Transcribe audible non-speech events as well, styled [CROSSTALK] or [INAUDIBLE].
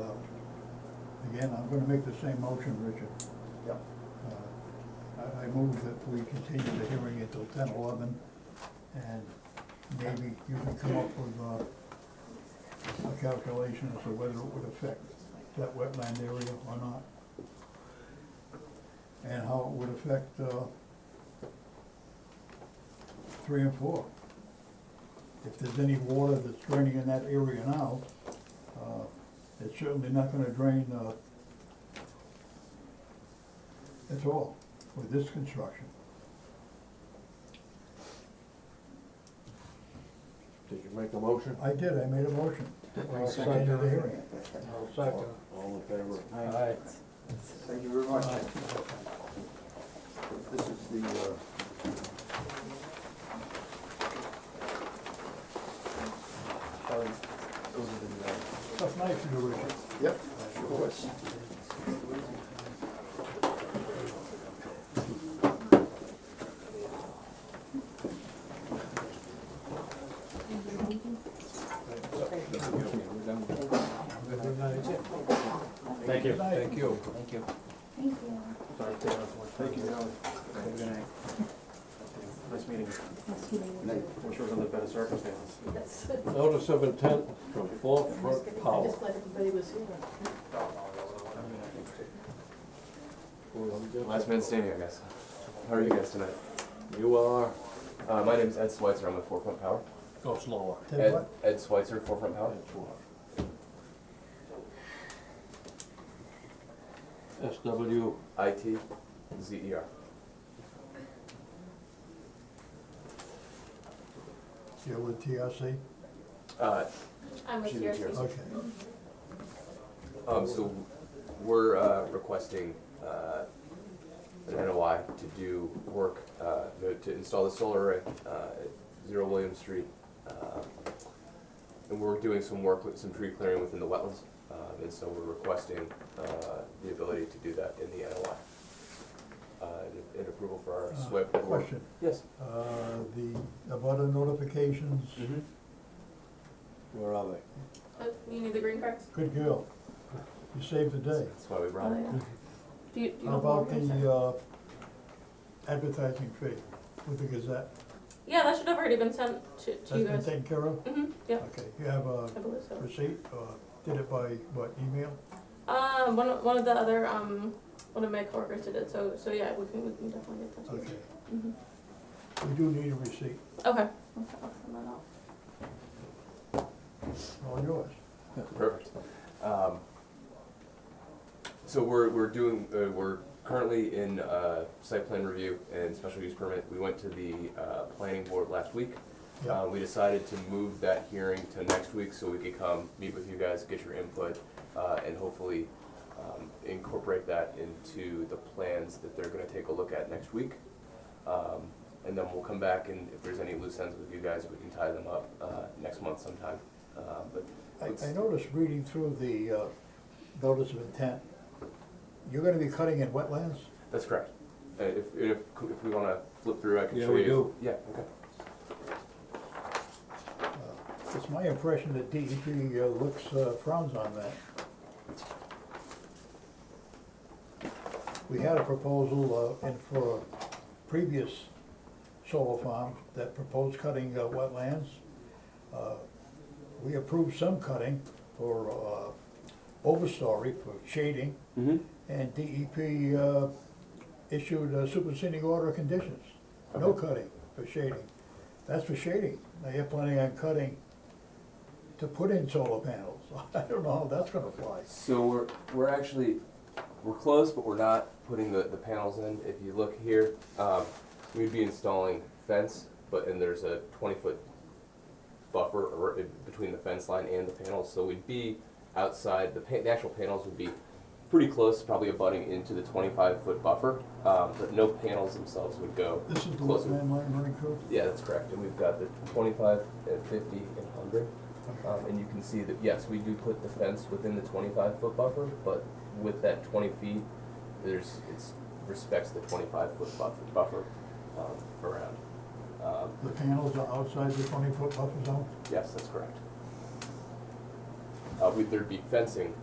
Uh, again, I'm gonna make the same motion, Richard. Yep. Uh, I, I move that we continue the hearing until ten eleven, and maybe you can come up with, uh, a calculation as to whether it would affect that wetland area or not. And how it would affect, uh, three and four. If there's any water that's draining in that area now, uh, it's certainly not gonna drain, uh, at all with this construction. Did you make a motion? I did, I made a motion. I'll End of the second. hearing. I'll second. All in favor? Aye. Thank you very much. This is the, uh, sorry, those are the, uh, Tough night for you, Richard. yep, sure was. Good night. Thank you. Thank you. Thank you. Sorry, Taylor. Thank you, Alan. Good night. Nice meeting you. Nice meeting you. Wish it was under better circumstances. Notice of intent from Forefront I Power. just let everybody was here. Last man standing, I guess. How are you guys tonight? You are, Uh, my name's Ed Schweitzer. I'm with Four Front Power. go slower. Ted, Ed, what? Ed Schweitzer, Four Front Power. SW, I T Z E R. You're with TRC? Uh, I'm with She's yours. yours. Okay. um, so we're uh, requesting uh, an NOI to do work uh, to- to install the solar array uh, at Zero William Street, uh, and we're doing some work with some tree clearing within the wetlands, uh, and so we're requesting uh, the ability to do that in the NOI. Uh, and- and approval for our Uh, SWIP. work. Question, Yes. uh, the, about the notifications, Mm-hmm. where are they? Oh, You need the green cards? good girl. You saved the day. That's why we brought Oh, it. yeah. Do you, do you How want about more? the, uh, advertising fee with the Gazette? Yeah, that should have already been sent to, to That's you been guys. taken care of? Mm-hmm, yeah, Okay, you have a I believe so. receipt, or did it by, what, email? Um, one of, one of the other, um, one of my coworkers did it, so, so yeah, we can, we can definitely get that. Okay. Mhm. We do need a receipt, Okay. I'll send that out. all yours. [LAUGHS] Perfect. Um, So we're, we're doing, uh, we're currently in, uh, site plan review and special use permit. We went to the, uh, planning board last week. Yeah. Uh, we decided to move that hearing to next week so we could come, meet with you guys, get your input, uh, and hopefully, um, incorporate that into the plans that they're gonna take a look at next week. Um, and then we'll come back and if there's any loose ends with you guys, we can tie them up, uh, next month sometime. Uh, but I, I noticed reading through the, uh, notice of intent, you're gonna be cutting in wetlands? That's correct. Uh, If, if, if we wanna flip through, I can Yeah, show you. we do. Yeah, okay. It's my impression that DEP uh, looks, uh, frowns on that. We had a proposal, uh, in for a previous solar farm that proposed cutting uh, wetlands. Uh, We approved some cutting for, uh, overstory for shading, and DEP, uh, issued a superseding order of conditions. No cutting for shading. That's for shading. Now you're planning on cutting to put in solar panels. [LAUGHS] I don't know how that's gonna fly. So we're, we're actually, we're close, but we're not putting the, the panels in. If you look here, um, we'd be installing fence, but, and there's a twenty-foot buffer or, in between the fence line and the panels, so we'd be outside, the pa- the actual panels would be pretty close, probably abutting into the twenty-five foot buffer, um, but no panels themselves would go This is the closer. wetland line running through? Yeah, that's correct, and we've got the twenty-five, and fifty, and hundred. Um, and you can see that, yes, we do put the fence within the twenty-five foot buffer, but with that twenty feet, there's, it's, respects the twenty-five foot buffer, buffer, um, around. Um, The panels are outside the twenty-foot buffer zone? yes, that's correct. Uh, we, there'd be fencing